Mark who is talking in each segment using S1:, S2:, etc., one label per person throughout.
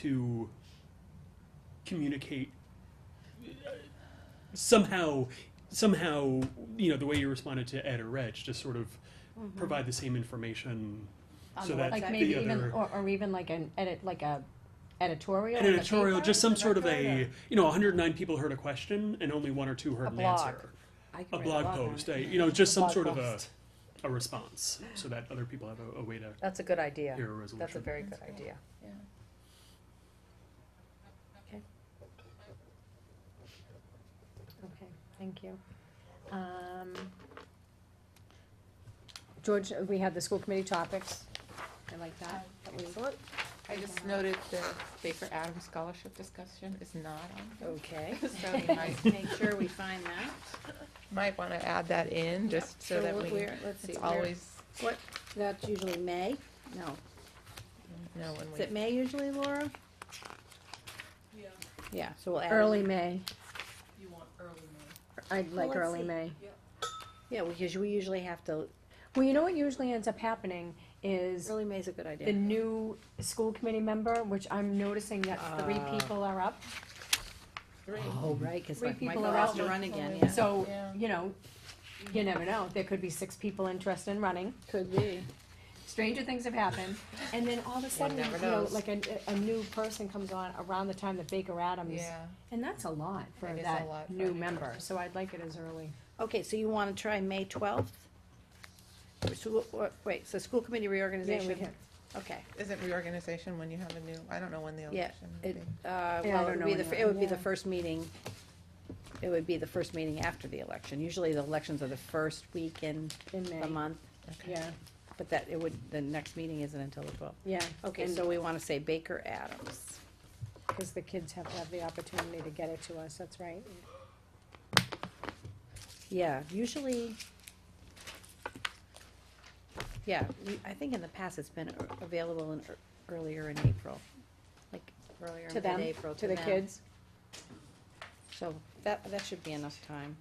S1: to communicate somehow somehow you know the way you responded to Ed or Reg to sort of
S2: Mm-hmm.
S1: provide the same information
S3: On
S1: so
S3: the
S1: that
S3: website.
S1: the
S2: Like maybe even,
S1: other
S2: or, or even like an edit, like a editorial.
S1: an
S2: in the
S1: editorial
S2: paper?
S1: just some
S2: Is that
S1: sort of
S2: good,
S1: a
S2: or-
S1: you know 109 people heard a question and only one or two heard
S2: A
S1: an
S2: blog.
S1: answer
S2: I could
S1: a
S2: write
S1: blog
S2: on
S1: post
S2: it.
S1: a, you know just some
S2: blog
S1: sort
S2: post.
S1: of a a response so that other people have a, a way to
S2: That's a good idea.
S1: hear a resolution
S2: That's a very good idea.
S3: Yeah.
S2: Okay. Okay, thank you. Um, George, we had the school committee topics. I like that. That was-
S3: Excellent. I just noted the Baker Adams Scholarship discussion is not on.
S2: Okay.
S3: here, So you might,
S4: Let's Make sure we find that.
S3: might wanna add that in, just so that
S4: we'll-
S3: we,
S4: we're- Let's see,
S3: it's
S4: we're,
S3: always,
S4: what, that's usually May? No.
S3: no, when
S4: Is it
S3: we,
S4: May usually, Laura? Yeah, so we'll add. it.
S2: Early May,
S5: You want early May.
S2: I'd like
S4: let's
S2: early
S4: see.
S2: May.
S4: Yeah, because we usually have to,
S2: Well, you know what usually ends up happening is
S4: early May's a good
S2: the
S4: idea.
S2: new school committee member, which I'm noticing that three
S4: Ah.
S2: people are up.
S4: Oh, right, cause
S2: Three
S4: like
S2: people
S4: Michael
S2: are
S4: has
S2: out
S4: to
S2: with-
S4: run again, yeah.
S2: So,
S3: Yeah.
S2: you know, you never know, there could be six people interested in running,
S4: Could be.
S2: stranger things have happened, and then all of a sudden, you
S3: never
S2: know,
S3: knows.
S2: like a, a new person comes on around the time that Baker Adams,
S3: yeah,
S2: and that's a lot for
S3: That is a
S2: that
S3: lot for a
S2: new
S3: new
S2: member,
S3: person.
S2: so I'd like it as early.
S4: Okay, so you wanna try May twelfth? So, what- wait, so school committee
S2: Yeah, we
S4: reorganization,
S2: can-
S4: okay.
S3: isn't reorganization when you have a new, I don't know when the
S4: Yeah,
S3: election would
S4: It,
S3: be.
S4: uh,
S2: Yeah,
S4: well,
S2: I don't
S4: it
S2: know
S4: would be the,
S2: when
S4: fir-
S2: that-
S4: it would be the
S2: yeah.
S4: first meeting, it would be the first meeting after the election. Usually the elections are the first week in
S2: In
S4: the
S2: May,
S4: month,
S3: Okay.
S2: yeah,
S4: but that, it would, the next meeting isn't until the twelfth.
S2: yeah.
S4: Okay,
S2: And-
S4: so we wanna say Baker Adams.
S2: Because the kids have to have the opportunity to get it to us, that's right.
S4: Yeah, usually, yeah, we- I think in the past it's been ear- available in, ear- earlier in April, like earlier
S2: To
S4: in
S2: them,
S4: mid-April
S2: To
S4: to
S2: the
S4: them.
S2: kids,
S4: So that, that should be enough time.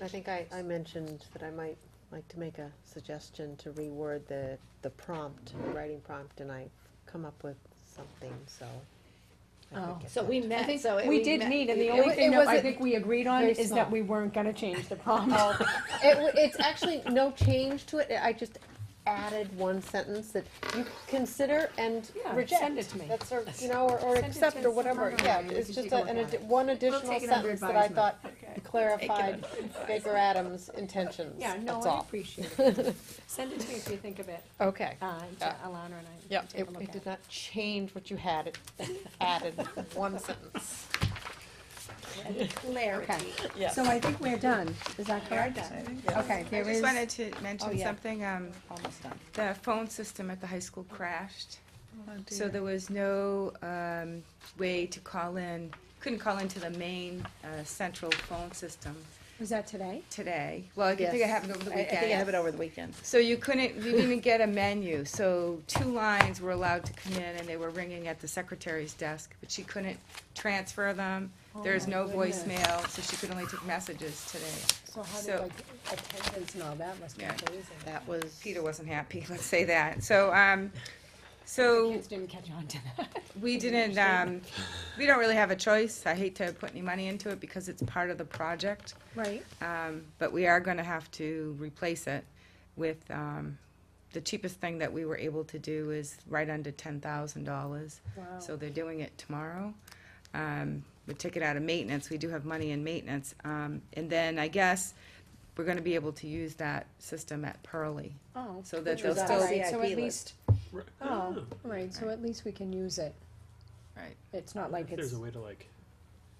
S6: I think I, I mentioned that I might like to make a suggestion to reword the, the prompt, the writing prompt, and I come up with something, so. I
S2: Oh.
S6: could get
S4: So we
S6: that.
S4: met, so. it-
S2: we did
S4: met-
S2: meet, and the
S4: it
S2: only
S4: wa-
S2: thing
S4: it
S2: that I
S4: wasn't-
S2: think we agreed on
S6: very
S2: is
S6: small.
S2: that we weren't gonna change the prompt.
S6: Oh, it, w- it's actually no change to it, I just added one sentence that you consider and
S2: Yeah,
S6: reject.
S2: send it to me.
S6: That's, or, you know, or,
S2: Send
S6: or
S2: it to us
S6: accept, or whatever,
S2: tomorrow,
S6: yeah,
S2: and we
S6: it's
S2: can
S6: just
S2: take a
S6: a-
S2: look
S6: an,
S2: at
S6: addi- one additional
S2: take it under
S6: sentence that I
S2: advisement.
S6: thought clarified Baker Adams' intentions,
S2: Yeah, no,
S6: that's
S2: I
S6: all.
S2: appreciate it. Send it to me if you think of it,
S6: Okay.
S2: uh, to
S6: Yeah.
S2: Alana and I. we
S6: Yeah,
S2: can take
S6: it,
S2: a look
S6: it
S2: at
S6: did not change what you had, it added one sentence.
S2: Okay,
S4: Clarity.
S6: Yes.
S2: so I think we're done, is that correct? Okay,
S7: I
S2: there
S7: just
S2: is,
S7: wanted to
S4: Oh,
S7: mention
S4: yeah.
S7: something, um,
S4: Almost done.
S7: the phone system at the high school crashed.
S3: Oh,
S7: So
S3: dear.
S7: there was no, um, way to call in, couldn't call into the main, uh, central phone system
S2: was that today?
S7: today. Well, I think it
S4: Yes.
S7: happened over the
S4: I- I think I have
S7: weekend.
S4: it over the weekend.
S7: So you couldn't, you didn't get a menu, so two lines were allowed to come in and they were ringing at the secretary's desk, but she couldn't transfer them.
S4: Oh,
S7: There's no voicemail, so she could only take messages today.
S2: So how
S7: So-
S2: did like attendance and all that must be
S7: Yeah.
S2: amazing.
S4: That was.
S7: Peter wasn't happy, let's say that. So, um, so.
S2: Kids didn't catch on to that.
S7: We didn't, um, we don't really have a choice. I hate to put any money into it because it's part of the project.
S2: Right.
S7: Um, but we are gonna have to replace it with, um, the cheapest thing that we were able to do is right under ten thousand dollars.
S2: Wow.
S7: So they're doing it tomorrow. Um, we took it out of maintenance. We do have money in maintenance. Um, and then I guess we're gonna be able to use that system at Pearlie.
S2: Oh.
S7: So that
S4: Which
S7: they'll
S4: was
S2: All
S4: still
S7: still,
S4: us.
S2: right, so
S4: CIP
S2: at least,
S1: Right.
S2: oh, all right, so at least we can use it.
S7: Right.
S2: It's not like
S1: If
S2: it's,
S1: there's a way to like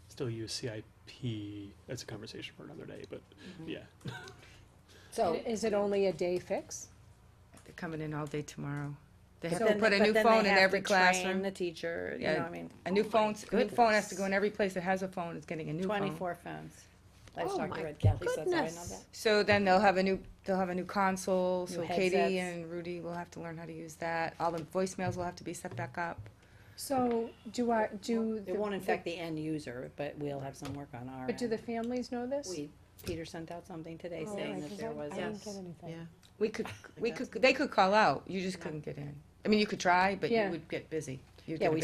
S1: still use CIP that's a conversation for another day but
S2: Mm-hmm.
S1: yeah
S2: so is it only a day fix?
S7: they're coming in all day tomorrow. They
S4: But
S7: have to
S4: then-
S7: put a
S4: but
S7: new
S4: then they
S7: phone in
S4: have to
S7: every
S4: train
S7: classroom.
S4: The teacher, you
S7: Yeah.
S4: know, I mean,
S7: A new phone, a new phone has to
S4: goodness.
S7: go in every place that has a phone, is getting a new phone.
S4: twenty-four phones. Livestock
S6: Oh my
S4: Red Kelly says, I know
S6: goodness.
S4: that.
S7: So then they'll have a new, they'll have a new console,
S4: New
S7: so Katie
S4: headsets.
S7: and Rudy will have to learn how to use that. All the voicemails will have to be set back up.
S2: So do I, do,
S4: It
S2: the-
S4: won't affect the end user, but we'll have some work on our
S2: but do
S4: end.
S2: the families know this?
S4: We, Peter sent out something today
S2: Oh,
S4: saying
S2: right,
S4: that
S2: 'cause
S4: there
S2: I-
S4: was
S2: I
S4: a,
S2: didn't get anything.
S6: Yeah.
S7: We could, we could, they could call out, you just couldn't get in. I mean, you could try, but you
S2: Yeah.
S7: would get busy.
S8: you
S7: Yeah,
S8: get a
S7: we